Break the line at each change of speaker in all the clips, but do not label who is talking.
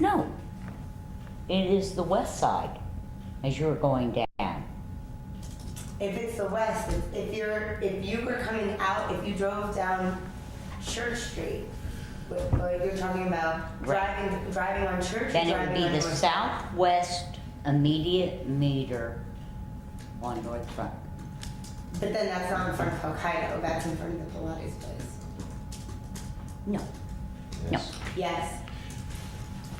No. It is the west side as you're going down.
If it's the west, if- if you're, if you were coming out, if you drove down Church Street, wh- like you're talking about
Right.
driving, driving on Church. or
Then it would
driving
be
on
the
North-
southwest immediate meter on North Front.
But then that's not in front of Hokkaido, that's in front of the Pilates place.
No, no.
Yes.
Yes,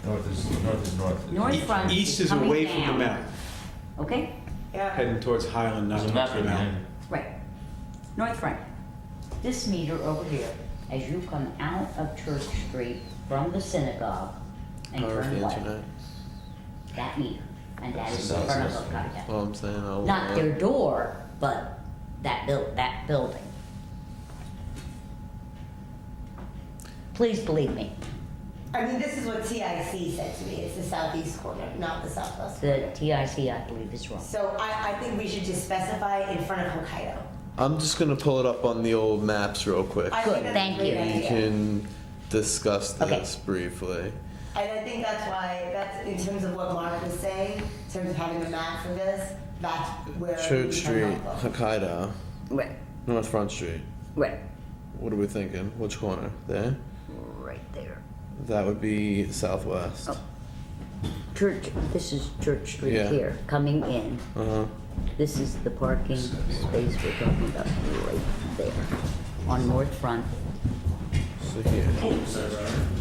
North is, north is north.
North Front
East
is
is
coming
away from the
down.
mountain,
Okay,
yeah.
heading towards Highland, not
There's a
towards
map
the
in
mountain.
there.
right. North Front. This meter over here, as you come out of Church Street from the synagogue and
Power of
turn
the
left,
internet.
that meter, and that
That's
is
the
in front of
southwest
Hokkaido.
Well, I'm saying I'll. uh,
Not their door, but that buil- that building. Please believe me,
I mean, this is what TIC said to me, it's the southeast corner, not the southwest
the
corner.
TIC, I believe, is wrong.
So I, I think we should just specify in front of Hokkaido.
I'm just gonna pull it up on the old maps real quick.
I
Good,
think that's a
thank
great
you.
We
idea.
can discuss
Okay.
this briefly.
And I think that's why, that's in terms of what Mark was saying, in terms of having a map for this, that's where. we
Church
can
Street,
help them.
Hokkaido,
Right,
North Front Street.
right,
What are we thinking? Which corner? There?
right there.
That would be southwest.
Oh. Church, this is Church Street
Yeah.
here, coming in.
Uh-huh.
This is the parking space we're talking about right there on North Front.
So here.
Oh,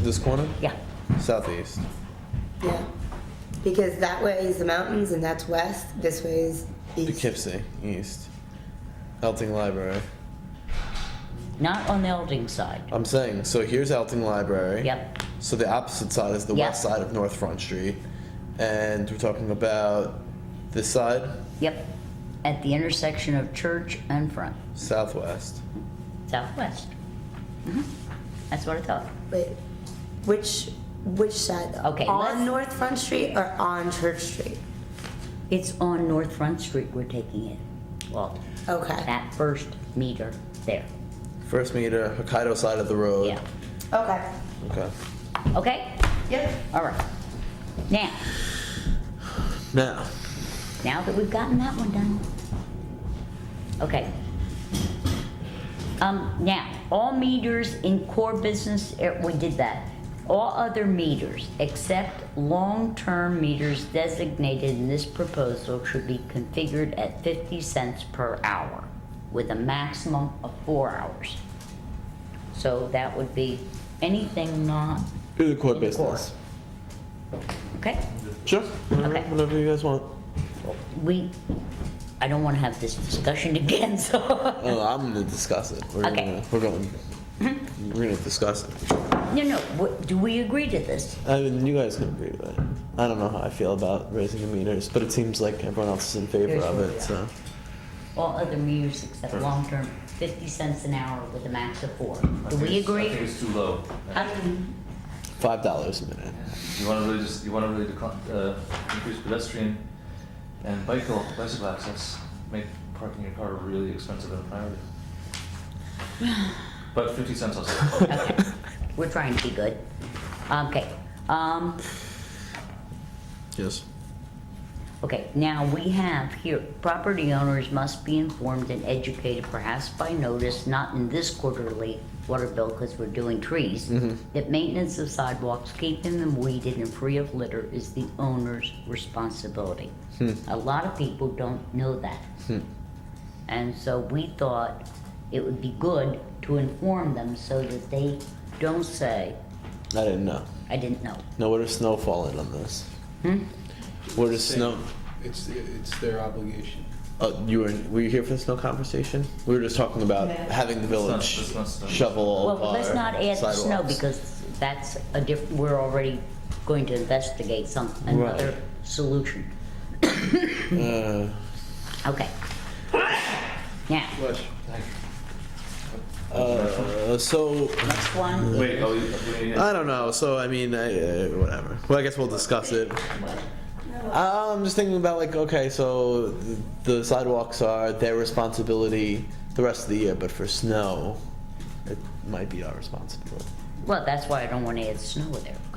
This corner?
Yeah,
Southeast.
Yeah, because that way is the mountains and that's west, this way is east.
Poughkeepsie, east. Elting Library.
not on the Elding side.
I'm saying, so here's Elting Library.
Yep,
So the opposite side is the
Yeah.
west side of North Front Street. And we're talking about this side,
yep. At the intersection of Church and Front.
southwest.
Southwest. Mhm. That's what I thought.
Wait, which, which side though?
Okay, let's-
On North Front Street or on Church Street?
It's on North Front Street we're taking it. Well,
Okay,
that first meter there.
First meter, Hokkaido side of the road.
Yeah.
okay,
Okay.
Okay?
yep.
All right. Now,
Now,
now that we've gotten that one done. Okay. Um, now, all meters in core business, eh, we did that. All other meters except long-term meters designated in this proposal should be configured at fifty cents per hour with a maximum of four hours. So that would be anything not
do the core
in core.
business.
Okay?
Sure. Whenever,
Okay.
whenever you guys want.
We, I don't wanna have this discussion again, so.
Oh, I'm gonna discuss it. We're
Okay.
gonna we're going we're gonna discuss it.
No, no, what- do we agree to this?
I mean you guys can agree with it. I don't know how I feel about raising the meters, but it seems like everyone else is in favor
Here's
of
what we
it,
are.
so
All other meters except long-term, fifty cents an hour with a max of four. Do we
I think
agree?
it's too low.
Um,
five dollars a minute.
You wanna really just, you wanna really decline, uh, increase pedestrian and bicycle, bicycle access, make parking your car really expensive and a priority. But fifty cents also.
Okay, we're trying to be good. Okay, um,
Yes.
okay, now we have here, property owners must be informed and educated perhaps by notice, not in this quarterly water bill, cause we're doing trees. That maintenance of sidewalks, keeping them weeded and free of litter is the owner's responsibility. A lot of people don't know that. And so we thought it would be good to inform them so that they don't say,
I didn't know.
I didn't know.
No, what is snow falling on this?
Hmm?
What is snow?
It's, it's their obligation.
Uh, you were were you here for the snow conversation? We were just talking about
Yeah.
having the
not-
village
that's not snow.
shovel all
Well,
of our
let's not add the snow
sidewalks.
because that's a diff, we're already going to investigate some, another
Right.
solution.
Uh,
Okay. Now,
uh, so
next one.
Wait, oh, you, you-
I don't know. So I mean, I, uh, whatever. Well, I guess we'll discuss it. Uh, I'm just thinking about like, okay, so th- the sidewalks are their responsibility the rest of the year, but for snow, it might be our responsibility.
Well, that's why I don't wanna add snow there.